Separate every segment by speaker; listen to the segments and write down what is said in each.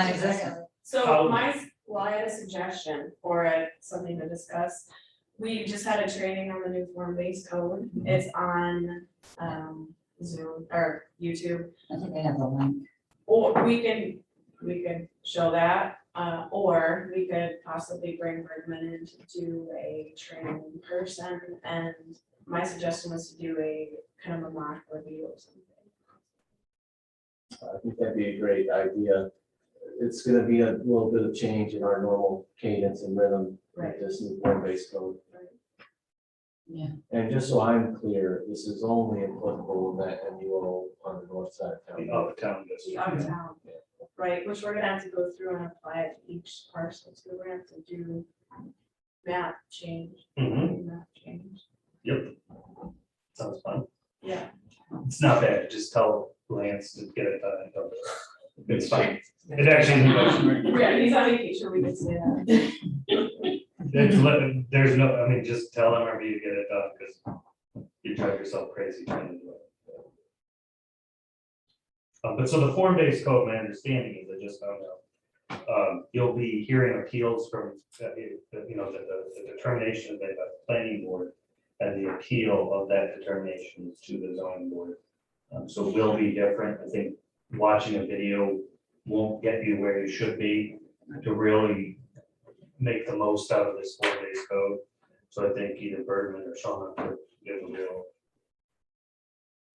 Speaker 1: non-existent.
Speaker 2: So
Speaker 3: How-
Speaker 2: my, well, I had a suggestion for it, something to discuss. We just had a training on the new form-based code. It's on um Zoom or YouTube.
Speaker 1: I think they have the link.
Speaker 2: Or we can, we could show that, uh, or we could possibly bring Bergman in to do a training in person. And my suggestion was to do a kind of a mock review or something.
Speaker 3: I think that'd be a great idea. It's gonna be a little bit of change in our normal cadence and rhythm
Speaker 2: Right.
Speaker 3: with this new form-based code.
Speaker 2: Right.
Speaker 1: Yeah.
Speaker 3: And just so I'm clear, this is only applicable in that MUO on the north side of
Speaker 4: the
Speaker 3: town.
Speaker 4: out of town
Speaker 2: The
Speaker 4: district.
Speaker 2: out of town, right, which we're gonna have to go through and apply it to each parcel, so we're gonna have to do map change,
Speaker 4: Mhm,
Speaker 2: map change,
Speaker 4: sounds fun.
Speaker 2: yeah.
Speaker 4: It's not bad, just tell Lance to get it done. and go. It's fine. It actually,
Speaker 2: Yeah, he's on vacation, we can say that.
Speaker 4: it's li- there's no, I mean, just tell him whenever you get it done, because you drive yourself crazy trying to do it. Uh, But so the form-based code, my understanding is, I just found out, um, you'll be hearing appeals from, uh, you you know, the, the- the determination of the planning board and the appeal of that determination to the zoning board. Um, So will be different. I think watching a video won't get you where you should be to really make the most out of this four days code. So I think either Bergman or Sean have to give a real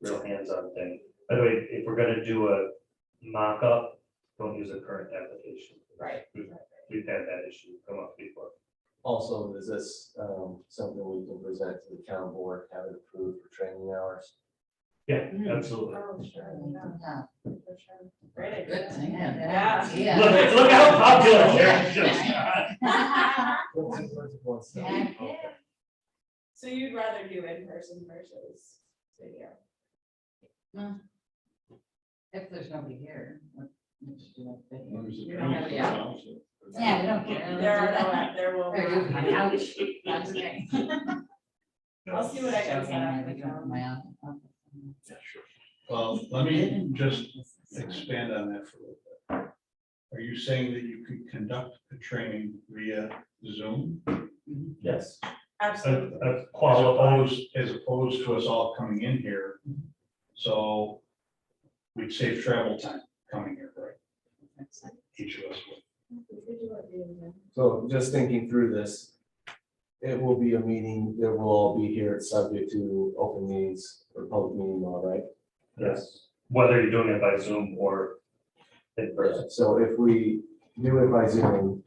Speaker 4: real hands-on thing. By the way, if we're gonna do a mock-up, don't use a current application.
Speaker 2: Right.
Speaker 4: We've had that issue come up before.
Speaker 3: Also, is this um, something we can present to the town board, have it approved for training hours?
Speaker 4: Yeah,
Speaker 1: Mm.
Speaker 4: absolutely.
Speaker 2: Oh, sure, yeah, for sure. Great idea.
Speaker 1: Good thing.
Speaker 2: Yeah.
Speaker 1: Yeah.
Speaker 4: Look, look how popular they're-
Speaker 3: What's it- what's it- what's it-
Speaker 1: Yeah.
Speaker 3: Okay.
Speaker 2: So you'd rather do in person versus video?
Speaker 1: If there's nobody here. what- what should you like to do?
Speaker 2: You don't have to.
Speaker 1: Yeah, we don't care.
Speaker 2: There are no, there will.
Speaker 1: There you go.
Speaker 2: not be.
Speaker 1: Ouch. That's okay.
Speaker 2: I'll see what I can
Speaker 1: Joking, I
Speaker 2: find.
Speaker 1: think I'm in my office.
Speaker 5: Well, let me just expand on that for a little bit. Are you saying that you could conduct the training via Zoom?
Speaker 3: Yes,
Speaker 4: A,
Speaker 2: Absolutely.
Speaker 4: a
Speaker 5: As
Speaker 4: qualified,
Speaker 5: opposed, as opposed to us all coming in here, so we'd save travel time coming here, right? Each of us would.
Speaker 3: so just thinking through this, it will be a meeting that will all be here, it's subject to open meetings or public meeting law, right?
Speaker 4: yes, whether you're doing it by Zoom or in person.
Speaker 3: So if we do it by Zoom,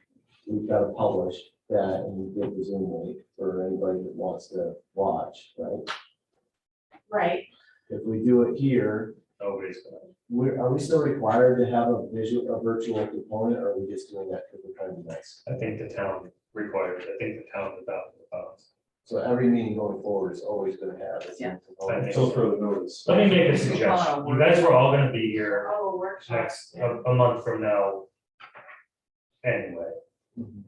Speaker 3: we've got to publish that and give the Zoom link for anybody that wants to watch, right?
Speaker 2: Right,
Speaker 3: If we do it here,
Speaker 4: Nobody's gonna,
Speaker 3: we're, are we still required to have a visual, a virtual component, or are we just doing that because we're trying to be nice?
Speaker 4: I think the town requires, I think the town without the bounds.
Speaker 3: So every meeting going forward is always gonna have a Zoom component.
Speaker 4: Yeah.
Speaker 3: Until further notice.
Speaker 4: Let me make a suggestion. You guys were all gonna be here uh,
Speaker 2: oh, a workshop.
Speaker 4: next, a, a month from now. Anyway,
Speaker 3: Mhm.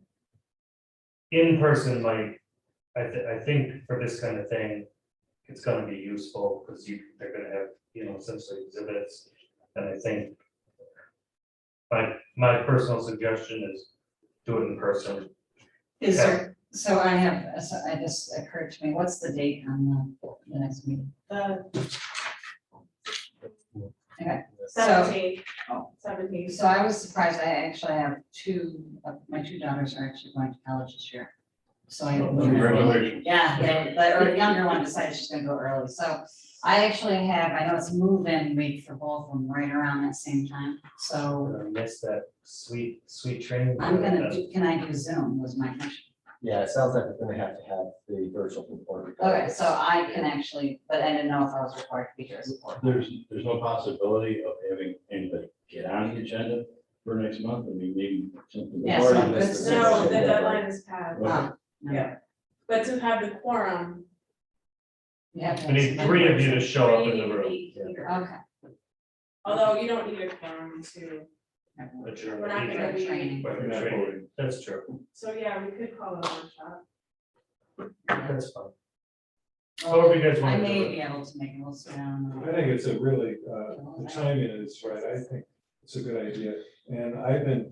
Speaker 4: in person, like, I thi- I think for this kind of thing, it's gonna be useful, because you, they're gonna have, you know, essentially exhibits, and I think. My, my personal suggestion is do it in person.
Speaker 1: Is there, so I have, so I just occurred to me, what's the date on the, the next meeting?
Speaker 2: The
Speaker 1: So,
Speaker 2: seventeen,
Speaker 1: Oh.
Speaker 2: seventeen.
Speaker 1: so I was surprised, I actually have two, of- my two daughters are actually going to college this year. So
Speaker 5: Oh,
Speaker 1: I.
Speaker 5: Congratulations.
Speaker 1: Yeah, they- the, or the younger one decided she's gonna go early, so I actually have, I know it's move-in week for both of them, right around that same time, so
Speaker 4: I miss that sweet, sweet train.
Speaker 1: I'm gonna, do- can I do Zoom was my question.
Speaker 3: Yeah, it sounds like we're gonna have to have the virtual component.
Speaker 1: Okay, so I can actually, but I didn't know if I was required to be here as a board.
Speaker 6: There's, there's no possibility of having anybody get on the agenda for next month, I mean, maybe something.
Speaker 1: Yeah,
Speaker 3: Already
Speaker 1: so it's-
Speaker 3: missed it.
Speaker 2: No, the deadline is passed,
Speaker 1: Ah, no.
Speaker 2: yeah, but to have the quorum.
Speaker 1: Yeah.
Speaker 4: I need three of you to show up in
Speaker 2: three
Speaker 4: the room.
Speaker 2: need to be here.
Speaker 1: Okay.
Speaker 2: Although you don't need a quorum to,
Speaker 4: But you're-
Speaker 2: we're not gonna be,
Speaker 1: Training.
Speaker 4: but you're
Speaker 6: Not
Speaker 4: training.
Speaker 6: voting.
Speaker 4: That's true.
Speaker 2: so yeah, we could call it a workshop.
Speaker 4: That's fine. However you guys
Speaker 1: I
Speaker 4: want to do
Speaker 1: may
Speaker 4: it.
Speaker 1: be able to make a little sit down.
Speaker 7: I think it's a really, uh, the timing is right, I think
Speaker 5: It's a good idea. And I've been